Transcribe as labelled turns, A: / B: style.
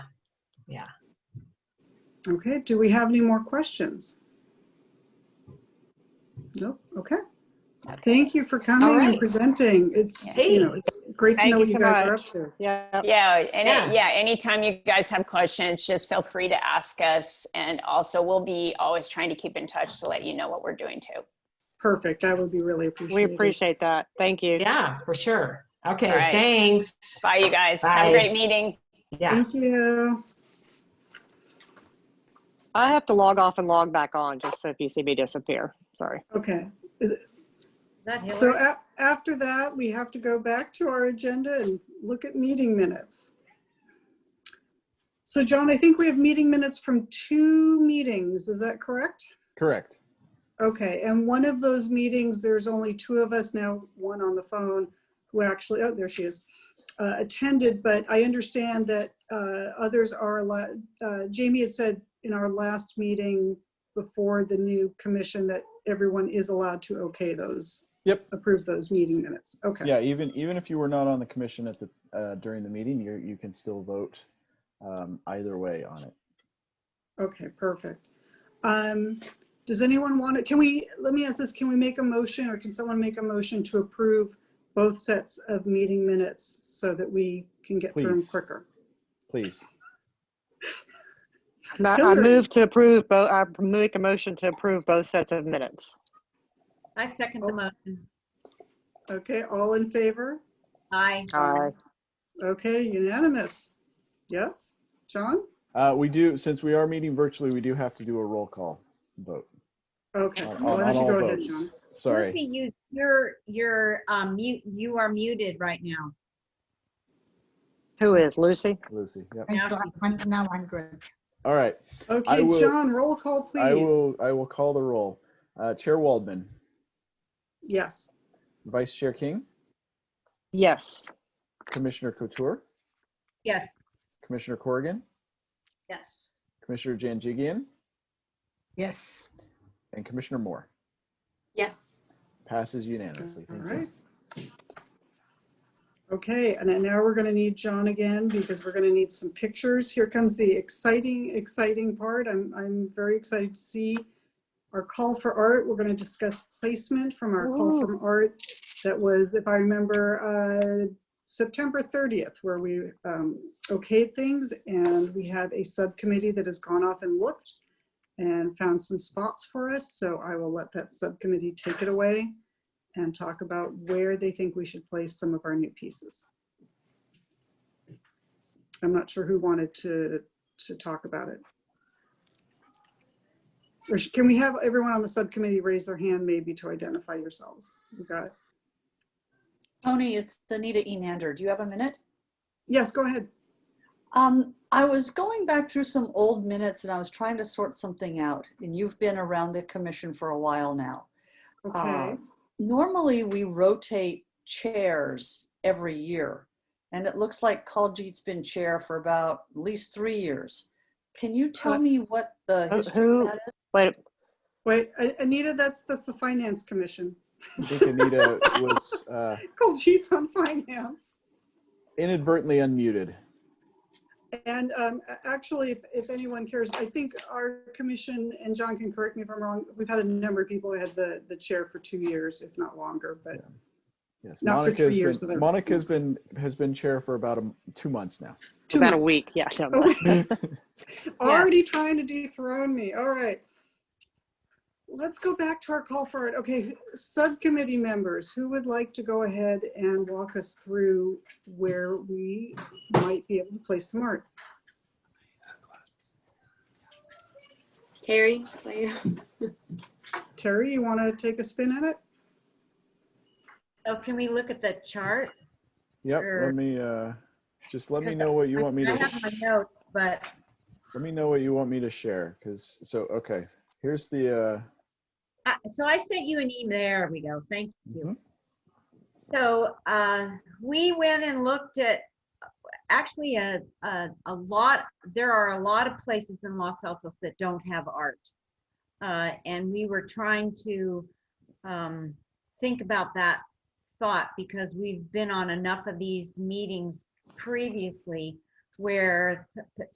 A: Yeah.
B: Okay, do we have any more questions? Nope, okay. Thank you for
A: All
B: coming and
A: right.
B: presenting. It's, you know, it's great to
C: Thank
B: know
C: you
B: what you
C: so
B: guys are
C: much.
B: up to.
C: Yeah.
D: Yeah, and
A: Yeah.
D: it- yeah, anytime you guys have questions, just feel free to ask us. And also, we'll be always trying to keep in touch to let you know what we're doing too.
B: Perfect, that would be really
C: We
B: appreciated.
C: appreciate that. Thank you.
A: Yeah, for sure. Okay,
D: All right.
A: thanks.
D: Bye, you guys. Have
A: Bye.
D: a great meeting.
A: Yeah.
B: Thank you.
C: I have to log off and log back on just so if you see me disappear. Sorry.
B: Okay. So a- after that, we have to go back to our agenda and look at meeting minutes. So John, I think we have meeting minutes from two meetings, is that correct?
E: Correct.
B: Okay, and one of those meetings, there's only two of us now, one on the phone, who actually, oh, there she is, uh, attended, but I understand that uh, others are, allowed- uh, Jamie had said in our last meeting before the new commission that everyone is allowed to okay those.
E: Yep.
B: Approve those meeting minutes. Okay,
E: Yeah, even even if you were not on the commission at the uh, during the meeting, you you can still vote um, either way on it.
B: okay, perfect. Um, Does anyone want to, can we, let me ask this, can we make a motion or can someone make a motion to approve both sets of meeting minutes so that we can get through them
E: Please.
B: quicker?
E: Please.
C: Ma- I
B: Hillary.
C: move to approve, bo- I make a motion to approve both sets of minutes.
F: I second the motion.
B: Okay, all in favor?
F: Aye.
C: Aye.
B: Okay, unanimous. Yes, John?
E: Uh, we do since we are meeting virtually, we do have to do a roll call vote.
B: Okay,
E: on-
B: why
E: on-
B: don't
E: on
B: you
E: all
B: go ahead,
E: votes.
B: John?
E: Sorry.
F: Lucy, you, you're, you're, um, mute, you are muted right now.
C: Who is Lucy?
E: Lucy. Yep.
F: Now
G: Now
F: she's-
G: I'm- now I'm good.
E: All right. I
B: Okay,
E: will-
B: John, roll call,
E: I
B: please.
E: will I will call the roll. Uh, Chair Waldman,
B: Yes,
E: Vice Chair King,
C: Yes.
E: Commissioner Couture,
F: Yes.
E: Commissioner Corrigan,
F: Yes.
E: Commissioner Janjigian,
G: Yes.
E: and Commissioner Moore.
H: Yes.
E: Passes unanimously.
B: all
E: Thank you.
B: right. Okay, and then now we're going to need John again because we're going to need some pictures. Here comes the exciting, exciting part. I'm, I'm very excited to see our call for art. We're going to discuss placement from our call
C: Ooh.
B: from art that was, if I remember, uh, September 30th, where we um, okayed things and we have a subcommittee that has gone off and looked and found some spots for us. So I will let that subcommittee take it away and talk about where they think we should place some of our new pieces. I'm not sure who wanted to, to talk about it. Or sh- can we have everyone on the subcommittee raise their hand maybe to identify yourselves? We got,
H: Tony, it's Anita Enander. Do you have a minute?
B: yes, go ahead.
H: Um, I was going back through some old minutes and I was trying to sort something out. And you've been around the commission for a while now.
B: Okay,
H: Uh, Normally, we rotate chairs every year. And it looks like Kaljit's been chair for about at least three years. Can you tell
B: Uh,
H: me what the
C: who-
H: history of
C: who-
H: that is?
C: Wait,
B: wait, A- Anita, that's, that's the Finance Commission.
E: I think Anita was uh,
B: Cold sheets on finance.
E: inadvertently unmuted.
B: And um, a- actually, if- if anyone cares, I think our commission, and John can correct me if I'm wrong, we've had a number of people who had the, the chair for two years, if not longer, but
E: Yes,
B: Not for
E: Monica
B: three
E: has
B: years that I-
E: been, Monica's been, has been chair for about a m- two months now.
B: Two
C: about a week. Yeah. no,
B: Oh,
E: All
B: already trying to dethrone me. All right. Let's go back to our call for it. Okay, who- subcommittee members, who would like to go ahead and walk us through where we might be able to place some art?
H: Terry, please.
B: Terry, you want to take a spin at it?
F: Oh, can we look at the chart?
E: Yep,
F: Sure.
E: let me, uh, just let me
F: Because
E: know what you want me
F: I
E: to,
F: have my
E: sh-
F: notes, but
E: let me know what you want me to share, because, so, okay, here's the, uh,
F: Uh, so I sent you an email. There we go. Thank
E: Mhm.
F: you. So uh, we went and looked at actually a, a a lot. There are a lot of places in Los Altos that don't have art, uh, and we were trying to um, think about that thought because we've been on enough of these meetings previously where